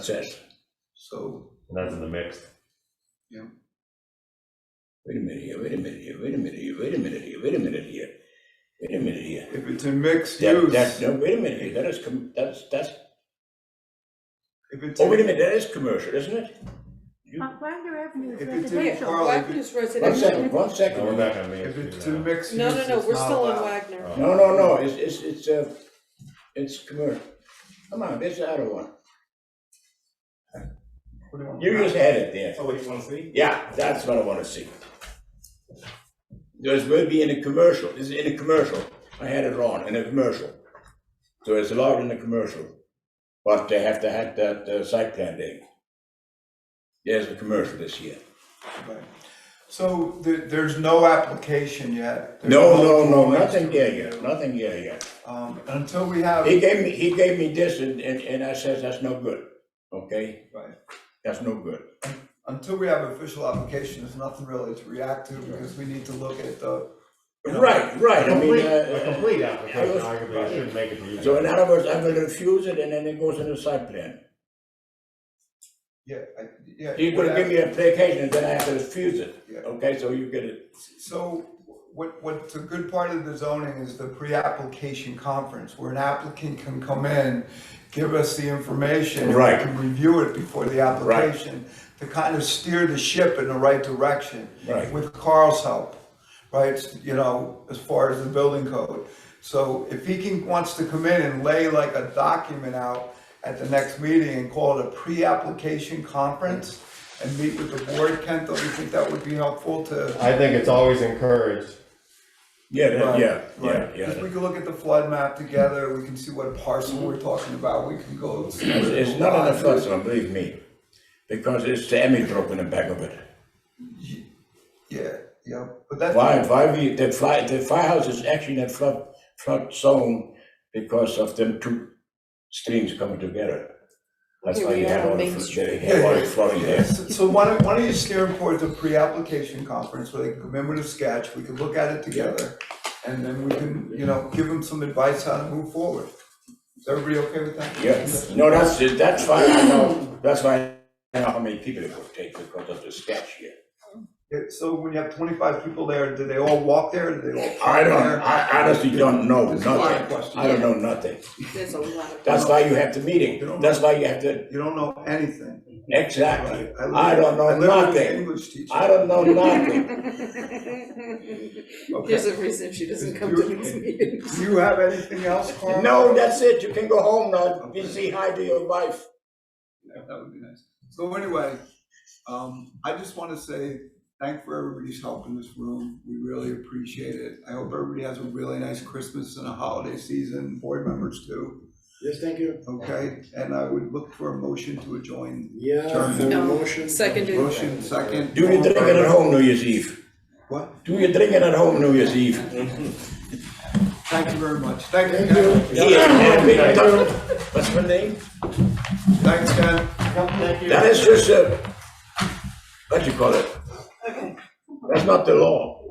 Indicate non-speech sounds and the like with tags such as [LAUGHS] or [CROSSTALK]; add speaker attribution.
Speaker 1: That's it.
Speaker 2: So,
Speaker 3: And that's in the mixed.
Speaker 1: Wait a minute here, wait a minute here, wait a minute here, wait a minute here, wait a minute here. Wait a minute here.
Speaker 2: if it's a mixed
Speaker 1: That,
Speaker 2: use,
Speaker 1: that,
Speaker 2: if
Speaker 1: no, wait a minute here, that is, com- that's, that's,
Speaker 2: it's,
Speaker 1: oh, wait a
Speaker 2: in-
Speaker 1: minute, that is commercial, isn't it? You-
Speaker 4: Uh, Wagner Avenue is
Speaker 2: If it's in-
Speaker 4: residential.
Speaker 2: Carl, if
Speaker 5: Wagner is
Speaker 1: One
Speaker 5: residential.
Speaker 1: second, one second.
Speaker 3: No, we're
Speaker 1: No,
Speaker 3: back on Main
Speaker 2: if
Speaker 3: Street
Speaker 2: it's a
Speaker 3: now. Oh.
Speaker 2: mixed
Speaker 5: No,
Speaker 2: use,
Speaker 5: no, no,
Speaker 2: it's
Speaker 5: we're
Speaker 2: not
Speaker 5: still on
Speaker 2: allowed.
Speaker 5: Wagner.
Speaker 1: no, no, it's, it's, it's, uh, it's commercial. Come on, it's the other one. You just had it there.
Speaker 6: Oh, what you wanna see?
Speaker 1: Yeah, that's what I wanna see. There's will be in a commercial, is in a commercial, I had it wrong, in a commercial. So it's allowed in a commercial, but they have to have that uh, site plan there. There's a commercial this year.
Speaker 2: Right. So there, there's no application yet. There's
Speaker 1: No, no, no,
Speaker 2: drawings
Speaker 1: nothing
Speaker 2: to
Speaker 1: there yet,
Speaker 2: review.
Speaker 1: nothing there yet.
Speaker 2: Um, until we have,
Speaker 1: He gave me, he gave me this and, and, and I says, that's no good, okay?
Speaker 2: right,
Speaker 1: That's no good.
Speaker 2: until we have official application, there's nothing really to react to because we need to look at the. you know,
Speaker 1: Right, right, I mean,
Speaker 3: A
Speaker 1: uh,
Speaker 3: complete
Speaker 1: I
Speaker 3: application,
Speaker 1: was-
Speaker 3: arguably, I shouldn't make it to you.
Speaker 1: so in other words, I will refuse it and then it goes in the site plan.
Speaker 2: Yeah, I, yeah.
Speaker 1: You're gonna give me a vacation and then I have to refuse it,
Speaker 2: Yeah.
Speaker 1: okay, so you get it.
Speaker 2: So what, what's a good part of the zoning is the pre-application conference, where an applicant can come in, give us the information. and we
Speaker 1: Right.
Speaker 2: can review it before the application, to kind of steer the ship in the right direction.
Speaker 1: Right.
Speaker 2: With Carl's help, right, you know, as far as the building code. So if he can, wants to come in and lay like a document out at the next meeting and call it a pre-application conference, and meet with the board, Kent, don't you think that would be helpful to?
Speaker 3: I think it's always encouraged.
Speaker 1: Yeah, that-
Speaker 2: Right,
Speaker 1: Uh, yeah, yeah,
Speaker 2: right.
Speaker 1: yeah.
Speaker 2: Because we can look at the flood map together, we can see what parcel we're talking about, we can go. It's
Speaker 1: It's it's not on the first one, believe me, because it's the Emmy drop in the back of it.
Speaker 2: Yeah, yeah, but that's.
Speaker 1: Why, why we, the fly, the firehouse is actually in a flood, flood zone because of them two streams coming together. That's
Speaker 5: Here
Speaker 1: why
Speaker 5: we
Speaker 1: you
Speaker 5: are
Speaker 1: have
Speaker 5: on
Speaker 1: all the,
Speaker 5: Main
Speaker 1: fl-
Speaker 5: Street.
Speaker 1: they have all the flooding
Speaker 2: Yeah,
Speaker 1: there.
Speaker 2: So so why don't, why don't you steer them towards a pre-application conference where they can come in with a sketch, we can look at it together. And then we can, you know, give them some advice how to move forward. Is everybody okay with that?
Speaker 1: Yeah, no, that's, that's why I know, that's why I know how many people it would take because of the sketch here.
Speaker 2: Yeah, So when you have twenty-five people there, do they all walk there, do they all?
Speaker 1: I
Speaker 2: park
Speaker 1: don't,
Speaker 2: there?
Speaker 1: I honestly don't know
Speaker 2: It's a lot of
Speaker 1: nothing, I don't know nothing.
Speaker 5: There's a lot of.
Speaker 1: That's why you have the meeting, that's why you have the,
Speaker 2: You don't know anything.
Speaker 1: exactly,
Speaker 2: Right,
Speaker 1: I don't know
Speaker 2: literally- I literally was an
Speaker 1: nothing,
Speaker 2: English teacher.
Speaker 1: I don't know
Speaker 2: [LAUGHS]
Speaker 1: nothing.
Speaker 2: Okay.
Speaker 5: [LAUGHS] There's a reason she doesn't come to these meetings.
Speaker 2: Do you have
Speaker 1: [LAUGHS]
Speaker 2: anything else, Carl?
Speaker 1: No, that's it, you can go home now, be say hi to your wife.
Speaker 2: Yeah, That would be nice. So anyway, um, I just want to say thank for everybody's help in this room. We really appreciate it. I hope everybody has a really nice Christmas and a holiday season, board members too,
Speaker 7: Yes, thank you.
Speaker 2: okay? And I would look for a motion to adjourn.
Speaker 7: Yeah,
Speaker 2: Turn.
Speaker 7: third
Speaker 5: No,
Speaker 7: motion.
Speaker 5: seconded.
Speaker 2: Motion second.
Speaker 1: Do you drink it at home New Year's Eve?
Speaker 2: What?
Speaker 1: Do you drink it at home New Year's Eve?
Speaker 2: Thank you very much. Thank you, Ken.
Speaker 1: Here, and big duck. What's her name?
Speaker 2: Thanks, Ken.
Speaker 1: That eh, is just a, what you call it? That's not the law.